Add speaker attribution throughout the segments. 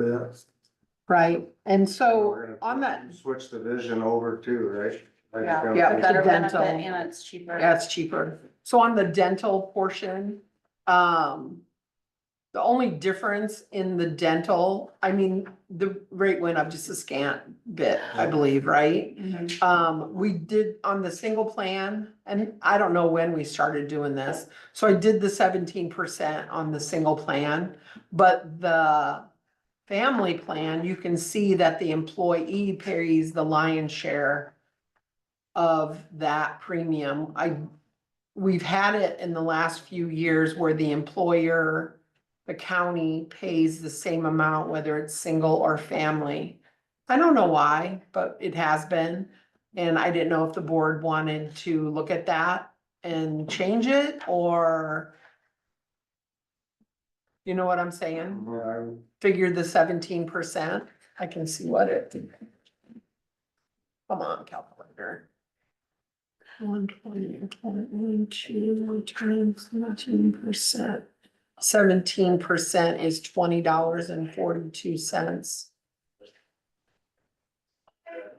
Speaker 1: bit.
Speaker 2: right? And
Speaker 1: We're
Speaker 2: so
Speaker 1: gonna
Speaker 2: on that,
Speaker 1: Switch the vision over too, right? Like,
Speaker 3: Yeah.
Speaker 1: um,
Speaker 2: Yeah,
Speaker 3: A better benefit
Speaker 2: dental.
Speaker 3: and it's cheaper.
Speaker 2: that's cheaper. So on the dental portion, um, the only difference in the dental, I mean, the rate went up just a scant bit, I believe, right?
Speaker 3: Mhm.
Speaker 2: Um, we did on the single plan, and I don't know when we started doing this, so I did the seventeen percent on the single plan. But the family plan, you can see that the employee pays the lion's share of that premium. I, we've had it in the last few years where the employer, the county pays the same amount, whether it's single or family. I don't know why, but it has been. And I didn't know if the board wanted to look at that and change it or you know what I'm saying?
Speaker 1: yeah, I'm-
Speaker 2: Figure the seventeen percent. I can see what it come on, calculator. One twenty, one, two, times seventeen percent. Seventeen percent is twenty dollars and forty-two cents.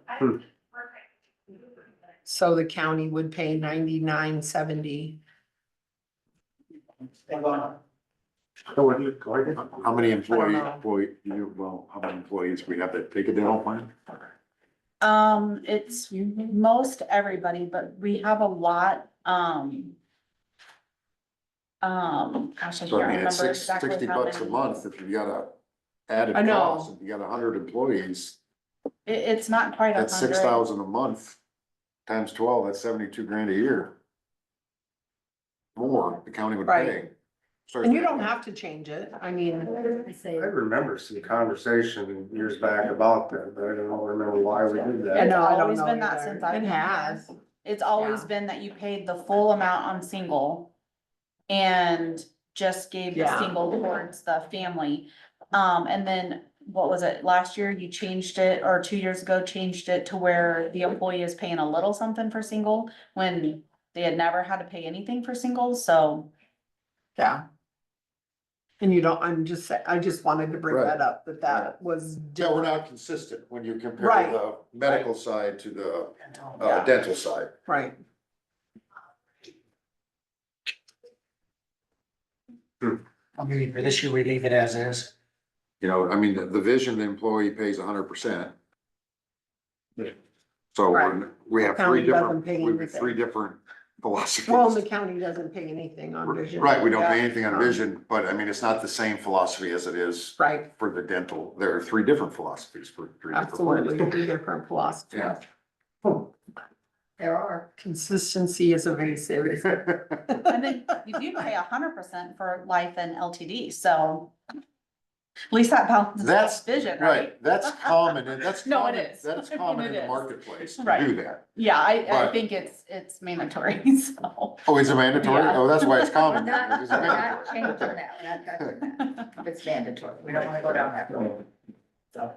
Speaker 1: Hmm.
Speaker 2: So the county would pay ninety-nine seventy.
Speaker 1: So what do you- like,
Speaker 4: How many employee,
Speaker 2: know.
Speaker 4: employee, you, well, how many employees we have that take a dental plan?
Speaker 3: Um, it's most everybody, but we have a lot, um. Um, gosh, I
Speaker 4: So
Speaker 3: can't
Speaker 4: I mean,
Speaker 3: remember
Speaker 4: it's six,
Speaker 3: exactly
Speaker 4: sixty
Speaker 3: how
Speaker 4: bucks a
Speaker 3: many.
Speaker 4: month if you got a added
Speaker 2: I know.
Speaker 4: cost, if you got a hundred employees,
Speaker 3: It, it's not quite a hundred.
Speaker 4: that's six thousand a month. Times twelve, that's seventy-two grand a year. More the county would
Speaker 2: Right.
Speaker 4: pay. Starts
Speaker 2: And you
Speaker 4: with-
Speaker 2: don't have to change it. I mean,
Speaker 1: I remember some conversation years back about that, but I don't remember why we did
Speaker 2: I
Speaker 1: that.
Speaker 2: know, I don't
Speaker 3: always
Speaker 2: know
Speaker 3: been that
Speaker 2: either.
Speaker 3: since I've
Speaker 2: It
Speaker 3: been
Speaker 2: has.
Speaker 3: It's always
Speaker 2: Yeah.
Speaker 3: been that you paid the full amount on single and just gave the
Speaker 2: Yeah.
Speaker 3: single towards the family. Um, and then what was it? Last year you changed it or two years ago changed it to where the employee is paying a little something for single when they had never had to pay anything for singles. So
Speaker 2: Yeah. And you don't, I'm just, sa- I just wanted to bring
Speaker 4: Right.
Speaker 2: that up, that that was.
Speaker 4: Yeah, we're not consistent when you compare
Speaker 2: Right.
Speaker 4: the medical side to the uh,
Speaker 2: Yeah.
Speaker 4: dental side.
Speaker 2: Right.
Speaker 5: I'm mean, for this year, we leave it as is.
Speaker 4: You know, I mean, the, the vision, the employee pays hundred percent.
Speaker 1: Yeah.
Speaker 4: So
Speaker 2: Right.
Speaker 4: we're- we have
Speaker 2: County
Speaker 4: three different,
Speaker 2: doesn't pay
Speaker 4: we have
Speaker 2: anything.
Speaker 4: three different
Speaker 2: Well, and the
Speaker 4: philosophies.
Speaker 2: county doesn't pay anything on vision.
Speaker 4: Right, we don't pay
Speaker 2: Yeah.
Speaker 4: anything on vision, but I mean, it's not the same philosophy as it is
Speaker 2: Right,
Speaker 4: for the dental. There are three different philosophies for three different.
Speaker 2: absolutely,
Speaker 4: plans.
Speaker 2: two different philosophies.
Speaker 4: Yeah.
Speaker 2: There are, consistency is evasive.
Speaker 3: and then you do pay a hundred percent for life and LTD. So at least that balances
Speaker 4: That's,
Speaker 3: out vision, right?
Speaker 4: right, that's common, and that's.
Speaker 3: No, it
Speaker 4: common-
Speaker 3: is.
Speaker 4: That's
Speaker 3: I mean,
Speaker 4: common in
Speaker 3: it
Speaker 4: the
Speaker 3: is.
Speaker 4: marketplace to
Speaker 3: Right.
Speaker 4: do that.
Speaker 3: Yeah, I, I
Speaker 4: But-
Speaker 3: think it's, it's mandatory, so.
Speaker 4: Oh, is it mandatory?
Speaker 3: Yeah.
Speaker 4: Oh, that's why it's common.
Speaker 6: Not,
Speaker 4: It's
Speaker 6: not
Speaker 4: mandatory.
Speaker 6: changing that, we're not touching that. If it's mandatory, we don't wanna go down that road. So,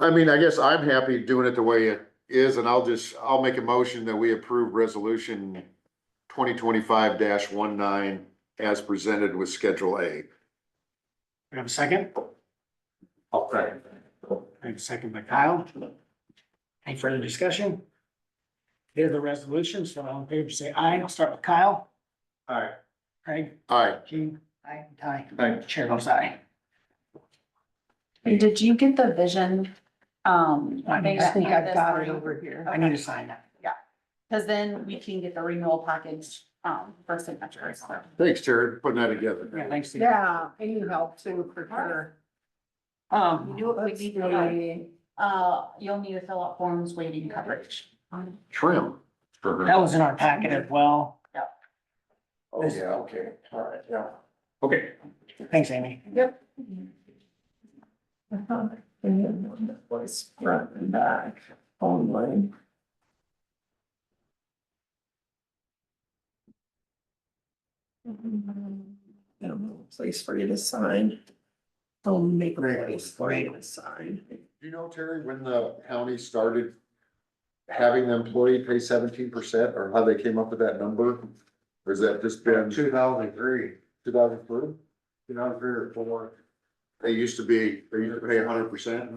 Speaker 4: I mean, I guess I'm happy doing it the way it is, and I'll just, I'll make a motion that we approve resolution twenty twenty-five 19 as presented with Schedule A.
Speaker 5: We have a second?
Speaker 1: I'll say.
Speaker 5: I have a second by Kyle. Any further discussion? Here's the resolution, so all in favor, say aye. I'll start with Kyle.
Speaker 1: All right.
Speaker 5: Craig,
Speaker 4: All right,
Speaker 5: Gene. Aye. Ty.
Speaker 1: Aye.
Speaker 5: Chair goes aye.
Speaker 3: And Did you get the vision? Um.
Speaker 5: I
Speaker 3: thing
Speaker 2: I
Speaker 3: that
Speaker 2: think
Speaker 3: came
Speaker 2: I've
Speaker 3: this
Speaker 2: got it
Speaker 3: morning?
Speaker 2: over here.
Speaker 5: I need to sign that.
Speaker 3: Cause then we can get the renewal package, um, for signatures. so.
Speaker 4: thanks, Terry, for putting that
Speaker 5: Yeah,
Speaker 4: together.
Speaker 5: thanks. Steve.
Speaker 2: Yeah, and you help too, for sure.
Speaker 5: Um,
Speaker 6: do what we need to do.
Speaker 2: Let's see.
Speaker 3: Uh, you'll need to fill out forms waiting coverage.
Speaker 4: Trim.
Speaker 5: that was in our packet as well.
Speaker 4: Oh, yeah, okay, all right, yeah.
Speaker 1: Okay.
Speaker 5: Thanks, Amy.
Speaker 2: Voice front and back only. I don't know, place for you to sign. I'll make a place for you to sign.
Speaker 4: Do you know, Terry, when the county started having the employee pay seventeen percent, or how they came up with that number? Or has that just been
Speaker 1: Two thousand three, two
Speaker 4: two thousand three?
Speaker 1: thousand three or four.
Speaker 4: They used to be, they used to pay hundred percent.